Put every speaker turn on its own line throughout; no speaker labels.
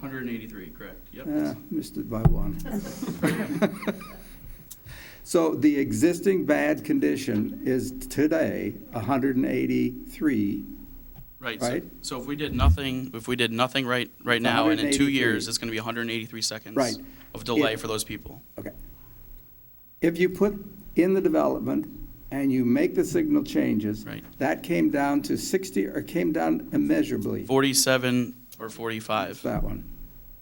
Hundred and eighty-three, correct, yep.
Ah, Missed it by one. So the existing bad condition is today 183.
Right, so,
right.
so if we did nothing, if we did nothing right, right
It's
now, and in two
183.
years, it's gonna be hundred and eighty-three seconds
Right.
of delay
It-
for those people.
Okay. If you put in the development and you make the signal changes.
Right.
That came down to 60, or came down immeasurably,
Forty-seven or forty-five,
that one.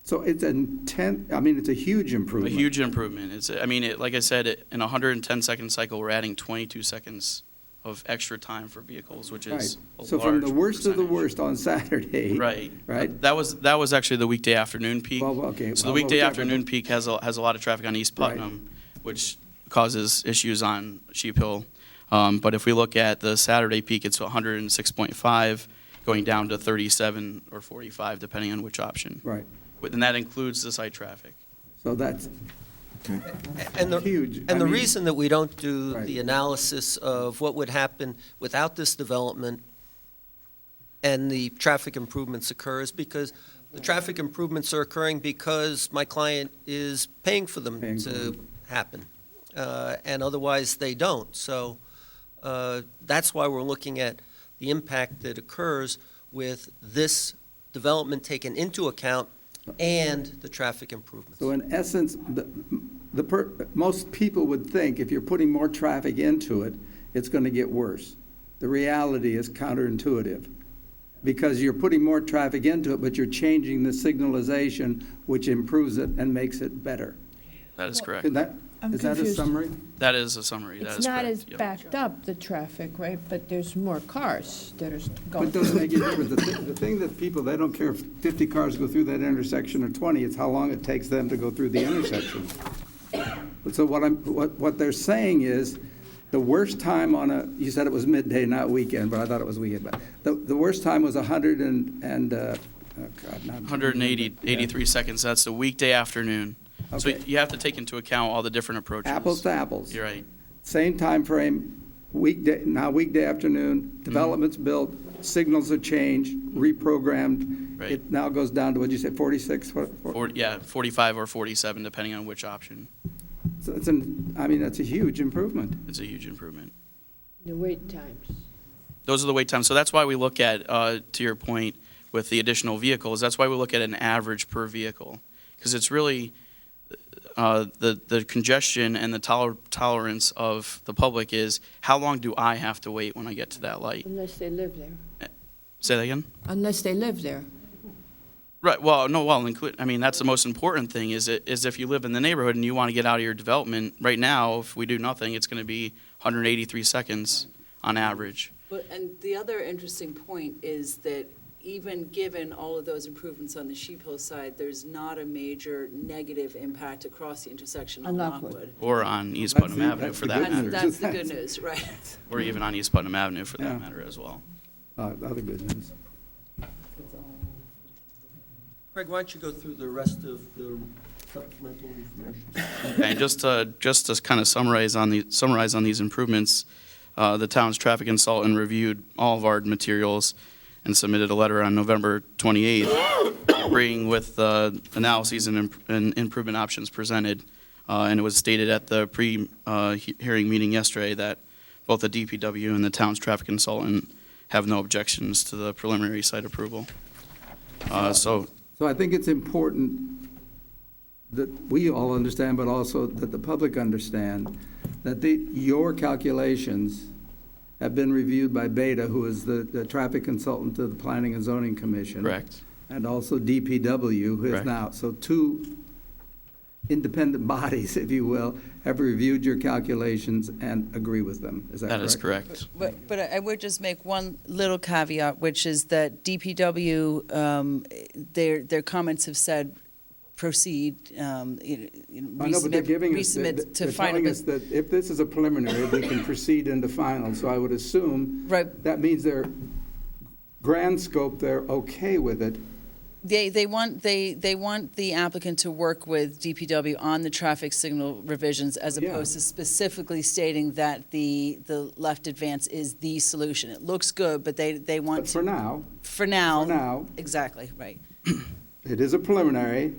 So it's a 10, I mean, it's a huge
a
improvement.
huge improvement. It's, I mean, it, like I said, it- in a hundred and ten second cycle, we're adding twenty-two seconds of extra time for vehicles, which
Right.
is a
So from the
large
worst of the
percentage.
worst on Saturday.
Right.
Right?
That was, that was actually the weekday afternoon peak.
Well, okay,
So
well,
the weekday
well,
afternoon peak has, a has a lot of traffic on East
Right.
Putnam, which causes issues on Sheep Hill. Um, But if we look at the Saturday peak, it's 106.5, going down to 37 or 45, depending on which option.
Right.
But- And that includes the site traffic.
So that's
And the,
Huge. I
and the
mean-
reason that we don't do
Right.
the analysis of what would happen without this development and the traffic improvements occurs because the traffic improvements are occurring because my client is paying for them
Paying for
to happen. Uh, and otherwise, they don't. So, uh, that's why we're looking at the impact that occurs with this development taken into account and the traffic improvements.
So in essence, the, the, per- most people would think if you're putting more traffic into it, it's going to get worse. The reality is counterintuitive, because you're putting more traffic into it, but you're changing the signalization, which improves it and makes it better.
That is correct.
Is that,
I'm
is that a
confused.
summary?
That is a summary. That
It's
is
not
correct.
as
Yep.
backed up, the traffic, right, but there's more cars that are
But
going.
it doesn't make any difference. The thi- The thing that people, they don't care if 50 cars go through that intersection or 20, it's how long it takes them to go through the intersection. But So what I'm, what, what they're saying is, the worst time on a, you said it was midday, not weekend, but I thought it was weekend, but the, the worst time was 100 and, and, uh, oh God, not.
180, 83 seconds, that's the weekday afternoon. So
Okay.
you have to take into account all the different approaches.
Apples to apples.
You're right.
Same time frame, weekday, now weekday afternoon, development's built, signals are changed, reprogrammed.
Right.
It now goes down to, what'd you say, 46? What- what-
Or, yeah, 45 or 47, depending on which option.
So it's an, I mean, that's a huge improvement.
It's a huge improvement.
The wait times.
Those are the wait times. So that's why we look at, uh, to your point, with the additional vehicles, that's why we look at an average per vehicle. Because it's really, uh, the, the congestion and the toler- tolerance of the public is, how long do I have to wait when I get to that light?
Unless they live there.
Say that again?
Unless they live there.
Right, well, no, well, include, I mean, that's the most important thing, is it, is if you live in the neighborhood and you want to get out of your development, right now, if we do nothing, it's going to be 183 seconds on average.
But, and the other interesting point is that even given all of those improvements on the Sheep Hill side, there's not a major negative impact across the intersection on
On Lockwood.
Lockwood.
Or on East
That's
Putnam
the-
Avenue
that's
for
the
that
good
matter,
news.
That's, that's the good
That's-
news, right?
or even on East Putnam Avenue for
Yeah.
that matter as well.
Uh, Other good news.
Craig, why don't you go through the rest of the supplemental information?
And just to, just to kind of summarize on the, summarize on these improvements, uh, the town's traffic consultant reviewed all of our materials and submitted a letter on November 28th, agreeing with the analyses and imp- and improvement options presented. Uh, And it was stated at the pre-hearing meeting yesterday that both the DPW and the town's traffic consultant have no objections to the preliminary site approval. Uh, So
So I think it's important that we all understand, but also that the public understand, that the, your calculations have been reviewed by Beta, who is the, the traffic consultant to the Planning and Zoning Commission.
Correct.
And also DPW, who is
Correct.
now, so two independent bodies, if you will, have reviewed your calculations and agree with them. Is that
that
correct?
is correct.
But, but I would just make one little caveat, which is that DPW, um, their, their comments have said proceed, um, you know,
I know, but they're
resubmit,
giving us, they're
resubmit to
they're
final.
telling us
bus-
that if this is a preliminary, we can proceed into final, so I would assume
Right,
that means they're, grand scope, they're okay with it.
They, they want, they, they want the applicant to work with DPW on the traffic signal revisions as
Yeah.
opposed to specifically stating that the, the left advance is the solution. It looks good, but they, they want
But for
to,
now,
for
for
now.
now,
Exactly, right.
it is a preliminary,